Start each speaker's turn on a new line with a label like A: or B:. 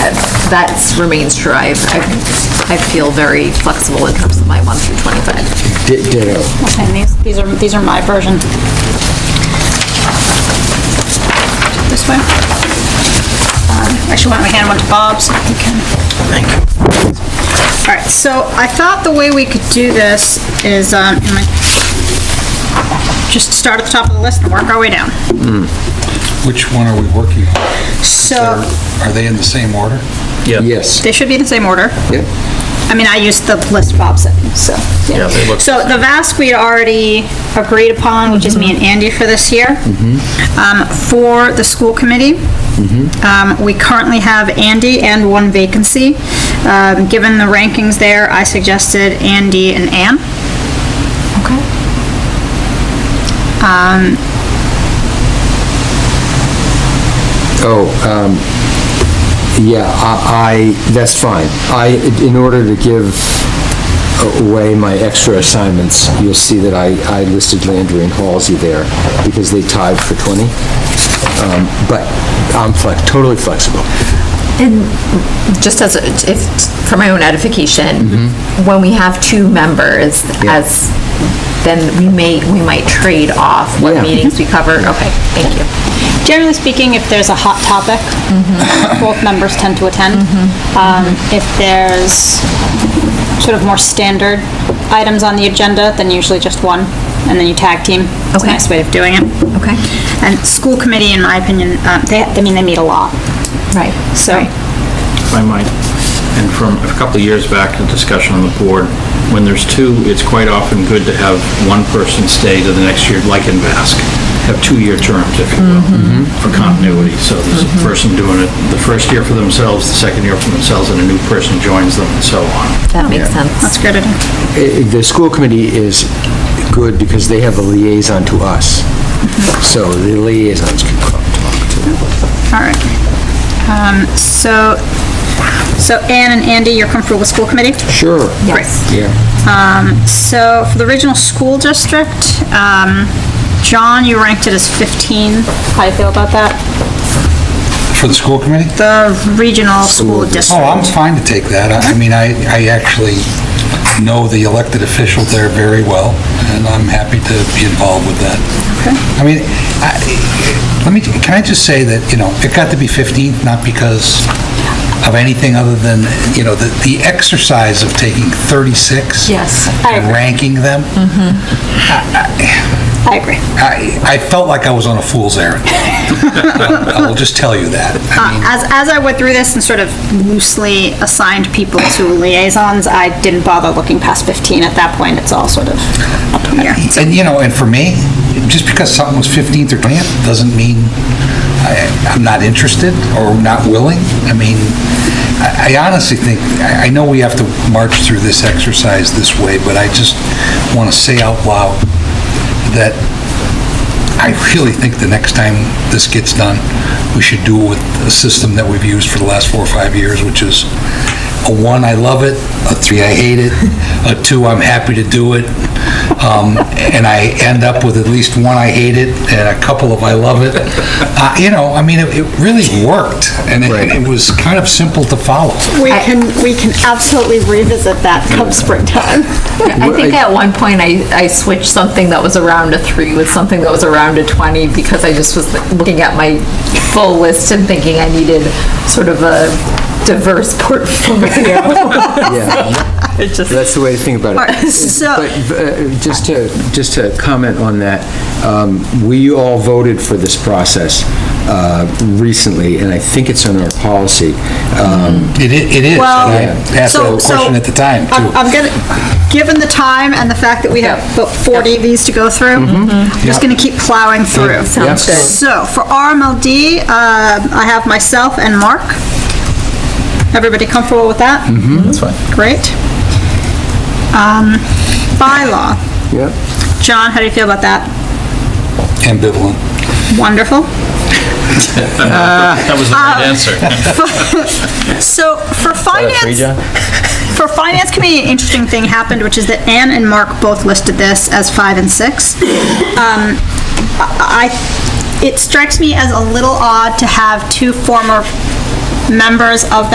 A: that remains true. I, I- I feel very flexible in terms of my 1 through 25.
B: Di- Ditto.
C: And these, these are, these are my version. This way. Um, Actually, why don't we hand one to Bob so he can... All right, so I thought the way we could do this is, um, am I- just start at the top of the list and work our way down.
D: Which one are we working on?
C: So,
D: Are are they in the same order?
B: Yes.
C: they should be in the same order.
B: Yep.
C: I mean, I used the list Bob sent me, so. Yeah,
E: they look-
C: So the VASC we already agreed upon, which is me and Andy for this year.
E: Mm-hmm.
C: Um, for the school committee, um, we currently have Andy and one vacancy. Um, given the rankings there, I suggested Andy and Ann.
A: Okay.
B: Oh, um, yeah, I, I- that's fine. I, in order to give away my extra assignments, you'll see that I, I listed Landry and Halsey there because they tied for 20. Um, But I'm flex, totally flexible.
A: And just as, a- if, for my own edification, when we have two members
B: Yeah.
A: as, then we may, we might trade off what
B: Yeah.
A: meetings we cover. Okay, thank you.
C: Generally speaking, if there's a hot topic,
A: Mm-hmm.
C: both members tend to attend. Um, If there's sort of more standard items on the agenda, then usually just one, and then you tag team. It's a
A: Okay.
C: nice way of doing it.
A: Okay.
C: And school committee, in my opinion, um, they, I mean, they meet a lot,
A: Right.
C: so.
E: my mind. And from a couple of years back, the discussion on the board, when there's two, it's quite often good to have one person stay to the next year, like in VASC, have two-year terms, if you will, for continuity. So there's a person doing it the first year for themselves, the second year for themselves, and a new person joins them, and so on.
A: That makes sense.
C: That's good.
B: Eh, The school committee is good because they have a liaison to us. So the liaisons can talk.
C: All right. Um, So, so Ann and Andy, you're comfortable with school committee?
B: Sure.
A: Yes.
B: Yeah.
C: So for the original school district, um, John, you ranked it as 15. How do you feel about that?
D: For the school committee?
C: The regional school
D: Oh, I'm
C: district.
D: fine to take that. I I mean, I, I actually know the elected official there very well, and I'm happy to be involved with that.
C: Okay.
D: I mean, I, let me, can I just say that, you know, it got to be 15th, not because of anything other than, you know, the, the exercise of taking 36.
A: Yes.
C: I agree. Mm-hmm.
D: And ranking them.
C: I agree. Uh,
D: I, I felt like I was on a fool's errand. I will just tell you that.
C: Uh, As, as I went through this and sort of loosely assigned people to liaisons, I didn't bother looking past 15 at that point. It's all sort of up in the air.
D: And, you know, and for me, just because something was 15th or 20th doesn't mean I- I'm not interested or not willing. I mean, I I honestly think, I I know we have to march through this exercise this way, but I just want to say out loud that I really think the next time this gets done, we should do it with a system that we've used for the last four or five years, which is a one, I love it, a three, I hate it, a two, I'm happy to do it, um, and I end up with at least one, I hate it, and a couple of, I love it. Uh, You know, I mean, it it really worked, and it- and it was kind of simple to follow.
C: We can, we can absolutely revisit that come springtime.
A: I think at one point I, I switched something that was around a three with something that was around a 20 because I just was looking at my full list and thinking I needed sort of a diverse portfolio.
B: Yeah,
A: It just-
B: that's the way to think about it.
C: So,
B: But uh, just to, just to comment on that, um, we all voted for this process uh, recently, and I think it's on our policy. Um,
D: It i- it is, and
C: Well,
D: I asked
C: so,
D: that
C: so.
D: question at the time,
C: I'm-
D: too.
C: I'm gonna, given the time and the fact that we have about 40 of these to go through, I'm just gonna keep plowing through.
A: Sounds good.
C: So, for RMLD, um, I have myself and Mark. Everybody comfortable with that? Mm-hmm, that's fine. Great. Um, Bylaw,
B: Yep.
C: John, how do you feel about that?
D: Ambivalent.
C: Wonderful. Uh,
E: That was the right answer.
C: So, for finance, for finance committee, an interesting thing happened, which is that Ann and Mark both listed this as five and six. Um, I, I- it strikes me as a little odd to have two former members of